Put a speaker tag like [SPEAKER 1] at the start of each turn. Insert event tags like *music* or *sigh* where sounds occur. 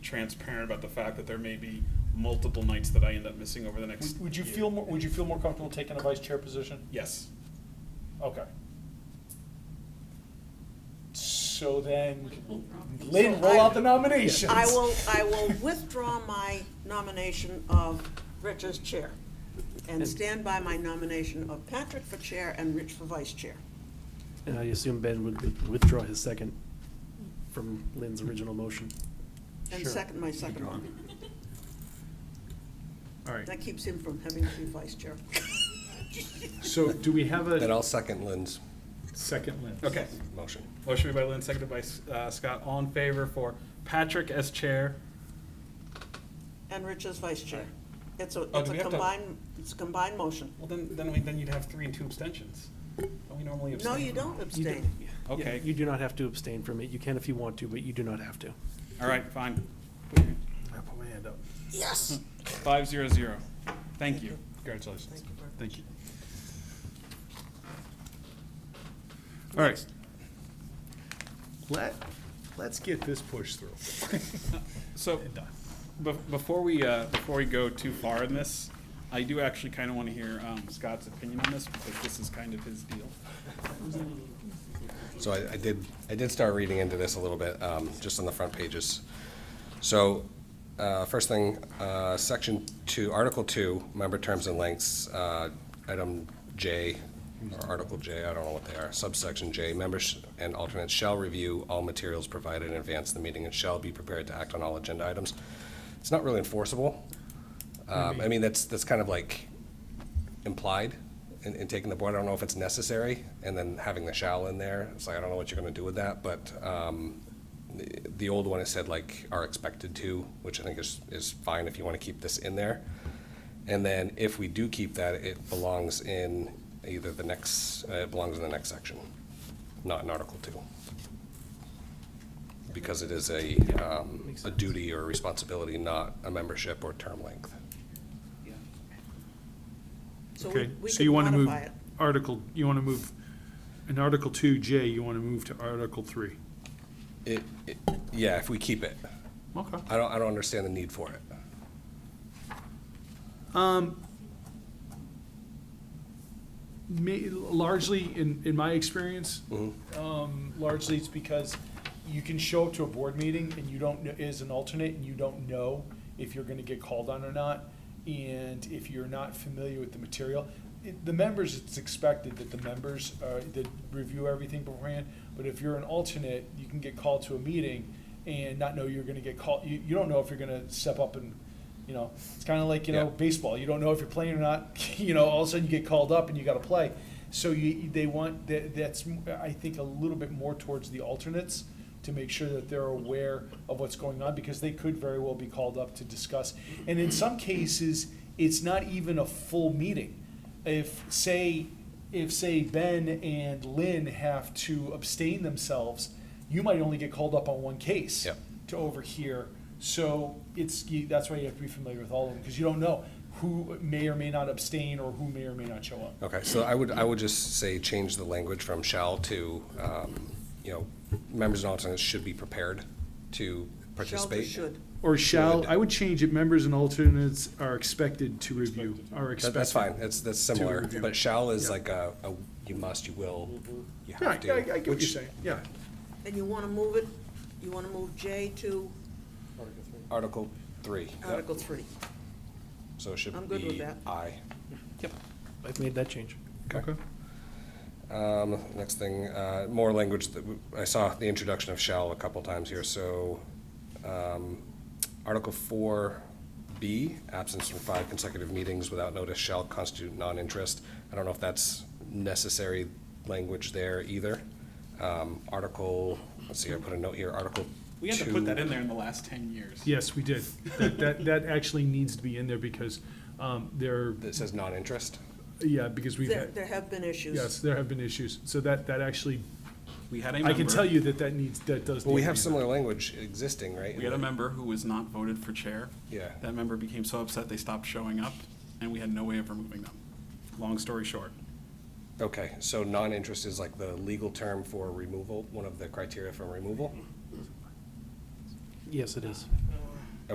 [SPEAKER 1] transparent about the fact that there may be multiple nights that I end up missing over the next.
[SPEAKER 2] Would- Would you
[SPEAKER 1] year.
[SPEAKER 2] feel, more? would you feel more comfortable taking a vice chair position?
[SPEAKER 1] Yes.
[SPEAKER 2] Okay. So then,
[SPEAKER 3] So
[SPEAKER 2] Lynn, roll
[SPEAKER 3] I-
[SPEAKER 2] out the nominations.
[SPEAKER 3] I will, I will withdraw my nomination of Rich as chair and stand by my nomination of Patrick for chair and Rich for vice chair.
[SPEAKER 4] And I assume Ben would with- withdraw his second from Lynn's original motion.
[SPEAKER 3] And
[SPEAKER 2] Sure.
[SPEAKER 3] second, my second one.
[SPEAKER 5] All right,
[SPEAKER 3] That keeps him from having to be vice chair.
[SPEAKER 5] so do we have
[SPEAKER 6] Then
[SPEAKER 5] a
[SPEAKER 6] I'll second Lynn's
[SPEAKER 5] second Lynn?
[SPEAKER 1] Okay.
[SPEAKER 6] motion.
[SPEAKER 1] Motion made by Lynn, seconded by uh, Scott. All in favor for Patrick as chair.
[SPEAKER 3] And Rich as vice chair. It's a,
[SPEAKER 1] Oh,
[SPEAKER 3] it's
[SPEAKER 1] do
[SPEAKER 3] a
[SPEAKER 1] we have to-
[SPEAKER 3] combined, it's a combined motion.
[SPEAKER 1] Well, then, then we, then you'd have three and two abstentions. Don't we normally abstain?
[SPEAKER 3] No, you don't
[SPEAKER 4] You do-
[SPEAKER 3] abstain.
[SPEAKER 4] yeah.
[SPEAKER 1] Okay.
[SPEAKER 4] You do not have to abstain from it. You can if you want to, but you do not have to.
[SPEAKER 1] All right, fine.
[SPEAKER 5] I put my hand up.
[SPEAKER 3] Yes.
[SPEAKER 1] Five zero zero. Thank you. Congratulations.
[SPEAKER 3] Thank you very much.
[SPEAKER 5] Thank you. All right. Let, let's get this pushed through.
[SPEAKER 2] *laughs*
[SPEAKER 1] So, be- before we, uh, before we go too far in this, I do actually kind of want to hear, um, Scott's opinion on this, because this is kind of his deal.
[SPEAKER 6] So I, I did, I did start reading into this a little bit, um, just on the front pages. So, uh, first thing, uh, section two, article two, member terms and lengths, uh, item J, or article J, I don't know what they are, subsection J, members and alternates shall review all materials provided in advance of the meeting and shall be prepared to act on all agenda items. It's not really enforceable. Um, I mean, that's, that's kind of like implied in, in taking the board. I don't know if it's necessary, and then having the shall in there. It's like, I don't know what you're gonna do with that, but, um, the, the old one, it said like, are expected to, which I think is, is fine if you wanna keep this in there. And then if we do keep that, it belongs in either the next, uh, it belongs in the next section, not in Article Two. Because it is a, um,
[SPEAKER 4] makes
[SPEAKER 6] a
[SPEAKER 4] sense.
[SPEAKER 6] duty or responsibility, not a membership or term length.
[SPEAKER 3] So we,
[SPEAKER 5] Okay,
[SPEAKER 3] we
[SPEAKER 5] so
[SPEAKER 3] could
[SPEAKER 5] you want to move
[SPEAKER 3] modify it.
[SPEAKER 5] article, you want to move, in Article two J, you want to move to Article three.
[SPEAKER 6] It, it, yeah, if we keep it.
[SPEAKER 5] Okay.
[SPEAKER 6] I don't, I don't understand the need for it.
[SPEAKER 5] Um, ma- largely, in, in my experience,
[SPEAKER 2] Um, largely it's because you can show up to a board meeting and you don't, kn- as an alternate, and you don't know if you're gonna get called on or not. And if you're not familiar with the material, it, the members, it's expected that the members, uh, that review everything beforehand. But if you're an alternate, you can get called to a meeting and not know you're gonna get called, you, you don't know if you're gonna step up and, you know, it's kinda like, you know,
[SPEAKER 6] Yeah.
[SPEAKER 2] baseball. You don't know if you're playing or not. *laughs* You know, all of a sudden you get called up and you got to play. So you, they want that, that's I think a little bit more towards the alternates to make sure that they're aware of what's going on because they could very well be called up to discuss. And in some cases, it's not even a full meeting. If say if say Ben and Lynn have to abstain themselves, you might only get called up on one case
[SPEAKER 6] Yep.
[SPEAKER 2] to overhear. So it's, you- that's why you have to be familiar with all of them, because you don't know who may or may not abstain or who may or may not show up.
[SPEAKER 6] Okay, so I would, I would just say change the language from shall to, um, you know, members and alternates should be prepared to
[SPEAKER 3] Shall
[SPEAKER 6] participate.
[SPEAKER 3] be should.
[SPEAKER 5] or shall,
[SPEAKER 6] Should.
[SPEAKER 5] I would change it, members and alternates are expected to review, are
[SPEAKER 6] That-
[SPEAKER 5] expected.
[SPEAKER 6] That's fine, that's, that's similar,
[SPEAKER 5] review.
[SPEAKER 6] but shall is
[SPEAKER 5] Yeah.
[SPEAKER 6] like a, a you must, you will,
[SPEAKER 3] Mm-hmm.
[SPEAKER 6] you
[SPEAKER 5] Yeah, I, I
[SPEAKER 6] have to.
[SPEAKER 5] I get what you're
[SPEAKER 6] which
[SPEAKER 5] saying, yeah.
[SPEAKER 3] And you want to move it, you want to move J to
[SPEAKER 6] Article three, Yep.
[SPEAKER 3] Article three.
[SPEAKER 6] so it
[SPEAKER 3] I'm
[SPEAKER 6] should
[SPEAKER 3] good with
[SPEAKER 6] be
[SPEAKER 3] that.
[SPEAKER 6] I.
[SPEAKER 4] Yep. I've made that change.
[SPEAKER 5] Okay.
[SPEAKER 6] Um, next thing, uh, more language that, w- I saw the introduction of shall a couple times here, so, um, Article four B, absence from five consecutive meetings without notice shall constitute non-interest. I don't know if that's necessary language there either. Um, Article, let's see, I put a note here, Article
[SPEAKER 1] We had to put
[SPEAKER 6] two-
[SPEAKER 1] that in there in the last ten years.
[SPEAKER 5] Yes, we did. That, that, that actually needs to be in there because, um, there,
[SPEAKER 6] That says non-interest?
[SPEAKER 5] yeah, because we've
[SPEAKER 3] There,
[SPEAKER 5] had,
[SPEAKER 3] there have been issues.
[SPEAKER 5] yes, there have been issues. So that, that actually,
[SPEAKER 1] We had a
[SPEAKER 5] I
[SPEAKER 1] member.
[SPEAKER 5] can tell you that that needs, that does.
[SPEAKER 6] Well, we
[SPEAKER 5] need to
[SPEAKER 6] have
[SPEAKER 5] be in
[SPEAKER 6] similar language existing, right?
[SPEAKER 1] We had a member who was not voted for chair.
[SPEAKER 6] Yeah.
[SPEAKER 1] That member became so upset they stopped showing up, and we had no way of removing them. Long story short.
[SPEAKER 6] Okay, so non-interest is like the legal term for removal, one of the criteria for removal?
[SPEAKER 4] Yes, it is.